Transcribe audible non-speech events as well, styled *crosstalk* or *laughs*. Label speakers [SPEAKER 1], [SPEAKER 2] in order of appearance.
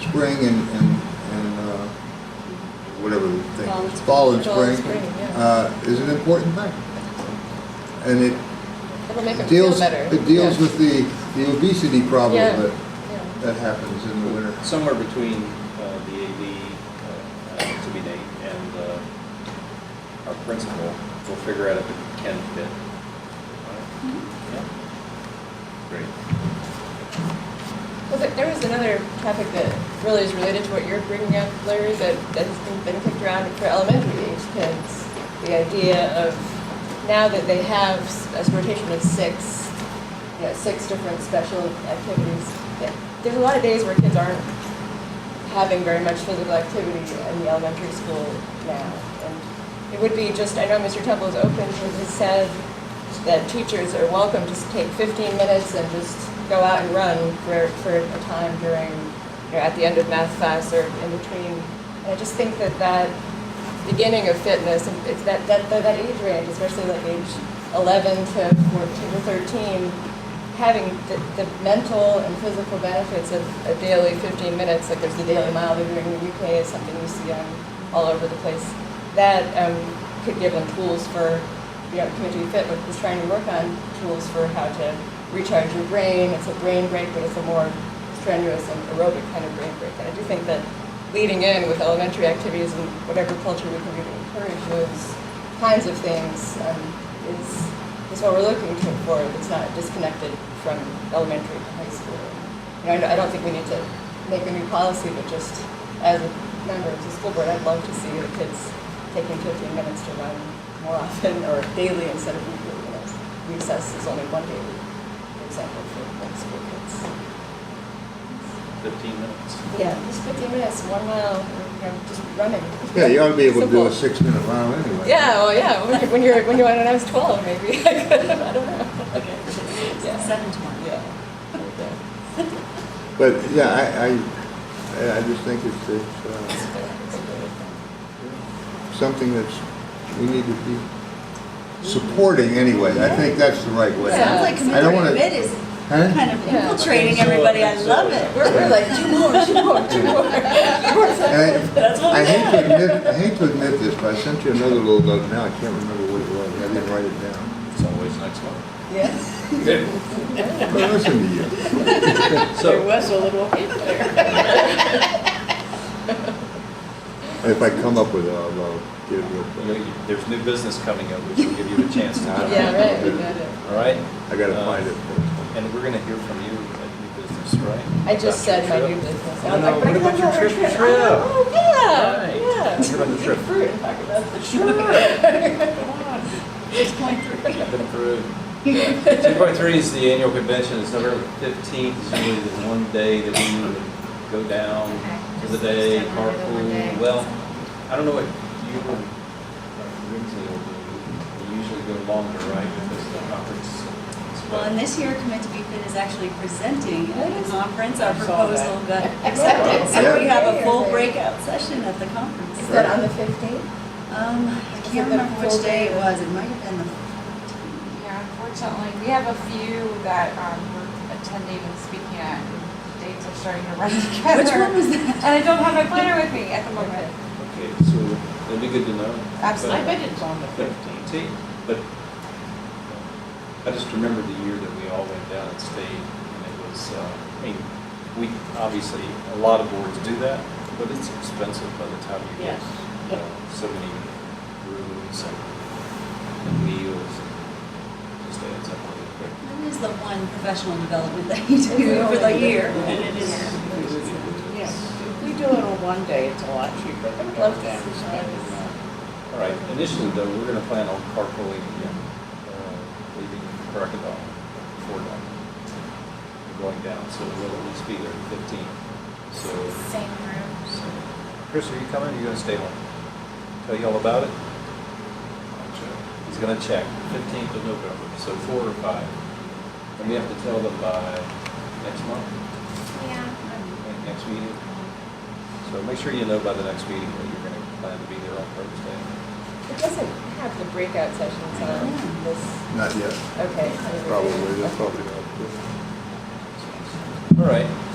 [SPEAKER 1] spring and, and, and, uh, whatever the thing.
[SPEAKER 2] Fall and
[SPEAKER 1] is, Fall and
[SPEAKER 2] spring. Fall and
[SPEAKER 1] spring,
[SPEAKER 2] spring, yeah.
[SPEAKER 1] uh, is an important thing. And it
[SPEAKER 2] It'll make her feel
[SPEAKER 1] deals,
[SPEAKER 2] better.
[SPEAKER 1] it deals
[SPEAKER 2] Yeah.
[SPEAKER 1] with the, the obesity problem
[SPEAKER 2] Yeah.
[SPEAKER 1] that,
[SPEAKER 2] Yeah.
[SPEAKER 1] that happens in the winter.
[SPEAKER 3] Somewhere between uh, the AD, uh, uh, to be named, and uh, our principal, we'll figure out if it can fit.
[SPEAKER 2] Mm-hmm.
[SPEAKER 3] Yeah. Great.
[SPEAKER 2] Well, there- there was another topic that really is related to what you're bringing up, Larry, that, that has been kicked around for elementary age kids. The idea of now that they have s- a rotation of six, you know, six different special activities. that- There's a lot of days where kids aren't having very much physical activity in the elementary school now. And it would be just, I know Mr. Temple is open, he has said that teachers are welcome to take 15 minutes and just go out and run for, for a time during, you know, at the end of math class or in between. And I just think that that beginning of fitness, and it's that, that, that that age range, especially like age 11 to 14 to 13, having the, the mental and physical benefits of a daily 15 minutes, like there's the Daily Mile they're doing in the UK, is something you see on all over the place. That um, could give them tools for, you know, Community Fit was was trying to work on tools for how to recharge your brain. It's a brain break, but it's a more strenuous and aerobic kind of brain break. And I do think that leading in with elementary activities and whatever culture we can do to encourage those kinds of things um, is is what we're looking to- for that's not disconnected from elementary to high school. You know, I don't- I don't think we need to make a new policy, but just as a member of the school board, I'd love to see the kids taking 15 minutes to run more often or daily instead of weekly. You know, recess is only one day, a week, for example, for like, school kids.
[SPEAKER 3] 15 minutes.
[SPEAKER 2] Yeah, just 15 minutes, one mile, you know, just running.
[SPEAKER 1] Yeah, you ought to be able to do a
[SPEAKER 2] Simple.
[SPEAKER 1] six-minute mile anyway.
[SPEAKER 2] Yeah, well, yeah, when you're, when you're, when you're, when I was 12, maybe, *laughs* I could, I don't know. Okay. Yeah,
[SPEAKER 4] Seven tomorrow.
[SPEAKER 2] yeah. Okay.
[SPEAKER 1] But, yeah, I, I, I- I just think it's, it's, uh, something that's, we need to be supporting anyway. I think that's the right way.
[SPEAKER 2] Yeah.
[SPEAKER 4] Sounds like
[SPEAKER 1] I don't wanna-
[SPEAKER 4] community mid is
[SPEAKER 1] Huh?
[SPEAKER 4] kind of
[SPEAKER 2] Yeah.
[SPEAKER 4] infiltrating
[SPEAKER 3] So,
[SPEAKER 4] everybody, I
[SPEAKER 3] so-
[SPEAKER 4] love it.
[SPEAKER 2] We're, we're like, two more, two more, two
[SPEAKER 3] *laughs*
[SPEAKER 2] more.
[SPEAKER 1] And
[SPEAKER 4] That's
[SPEAKER 1] I,
[SPEAKER 4] what
[SPEAKER 1] I
[SPEAKER 4] I'm
[SPEAKER 1] hate to
[SPEAKER 4] saying.
[SPEAKER 1] admit, I hate to admit this, but I sent you another little note now. I can't remember what it was. I didn't write it down.
[SPEAKER 3] It's always next
[SPEAKER 2] *laughs*
[SPEAKER 3] month.
[SPEAKER 2] Yeah.
[SPEAKER 1] But listen to you.
[SPEAKER 3] So,
[SPEAKER 4] was a little hint there.
[SPEAKER 1] If I come up with it, I'll, I'll get it real
[SPEAKER 3] you know,
[SPEAKER 1] quick.
[SPEAKER 3] you- there's new business coming up, which will give you a chance to.
[SPEAKER 2] *laughs*
[SPEAKER 3] jump
[SPEAKER 2] Yeah,
[SPEAKER 3] in.
[SPEAKER 2] right, we got it.
[SPEAKER 3] All right?
[SPEAKER 1] I gotta find it.
[SPEAKER 3] And we're going to hear from you at new business, right?
[SPEAKER 2] I just
[SPEAKER 3] About
[SPEAKER 2] said
[SPEAKER 3] your
[SPEAKER 2] my
[SPEAKER 3] trip.
[SPEAKER 2] new business.
[SPEAKER 3] Oh, No, no, what about your trip to
[SPEAKER 2] Oh,
[SPEAKER 3] Trib? Right.
[SPEAKER 2] Yeah, yeah.
[SPEAKER 3] What about the trip?
[SPEAKER 2] Eat Fruit and talk about the
[SPEAKER 4] Sure. Six point three.
[SPEAKER 3] I've been through. Two point three is the annual convention, it's November fifteenth, it's usually the one day that we would go down to the day, carpool, well, I don't know what you or uh, Lindsay will do. You usually go longer, right, because the conference. is-
[SPEAKER 4] Well, and this year, Commit to Be Fit is actually presenting at the conference, our
[SPEAKER 2] I saw that.
[SPEAKER 4] proposal got accepted.
[SPEAKER 1] Yeah.
[SPEAKER 4] So we have a full breakout session at the conference.
[SPEAKER 2] Is that on the fifteenth?
[SPEAKER 4] Um, I
[SPEAKER 2] Is it
[SPEAKER 4] can't
[SPEAKER 2] the
[SPEAKER 4] remember
[SPEAKER 2] full
[SPEAKER 4] which
[SPEAKER 2] day?
[SPEAKER 4] day it was, it might have been the
[SPEAKER 5] Yeah, unfortunately, we have a few that um, we're attending and speaking at, and dates are starting to run *laughs* together.
[SPEAKER 4] Which one was that?
[SPEAKER 5] And I don't have my planner with me at the moment.
[SPEAKER 3] Okay, so that'd be good to know.
[SPEAKER 5] Absolutely. I bet
[SPEAKER 3] it's on the fifteenth. But I just remember the year that we all went down and stayed, and it was, uh, I mean, we, obviously, a lot of boards do that, but it's expensive by the time you get, you know, so many rooms and and meals, and just adds up really quick.
[SPEAKER 4] That is the one professional development *laughs* that you do
[SPEAKER 2] Yeah.
[SPEAKER 4] for the year, and it is.
[SPEAKER 6] If we do it on one day, it's a lot cheaper than
[SPEAKER 2] I'd
[SPEAKER 6] going
[SPEAKER 2] love to
[SPEAKER 6] down and
[SPEAKER 2] see
[SPEAKER 6] spending
[SPEAKER 2] that.
[SPEAKER 6] money.
[SPEAKER 3] All right, initially though, we're gonna plan on carpooling again, uh, leaving Crocodile before dawn. We're going down, so we'll at least be there at fifteen, so.
[SPEAKER 5] Same room.
[SPEAKER 3] so- Chris, are you coming, or you gonna stay home? Tell you all about it? I'll check. He's gonna check, fifteenth of November, so four or five. And we have to tell them by next month,
[SPEAKER 5] Yeah.
[SPEAKER 3] like next meeting. So make sure you know by the next meeting that you're gonna plan to be there on Thursday.
[SPEAKER 2] It doesn't have the breakout sessions on this,
[SPEAKER 1] Not yet,
[SPEAKER 2] okay. so-
[SPEAKER 1] probably, that's probably not.
[SPEAKER 3] All right,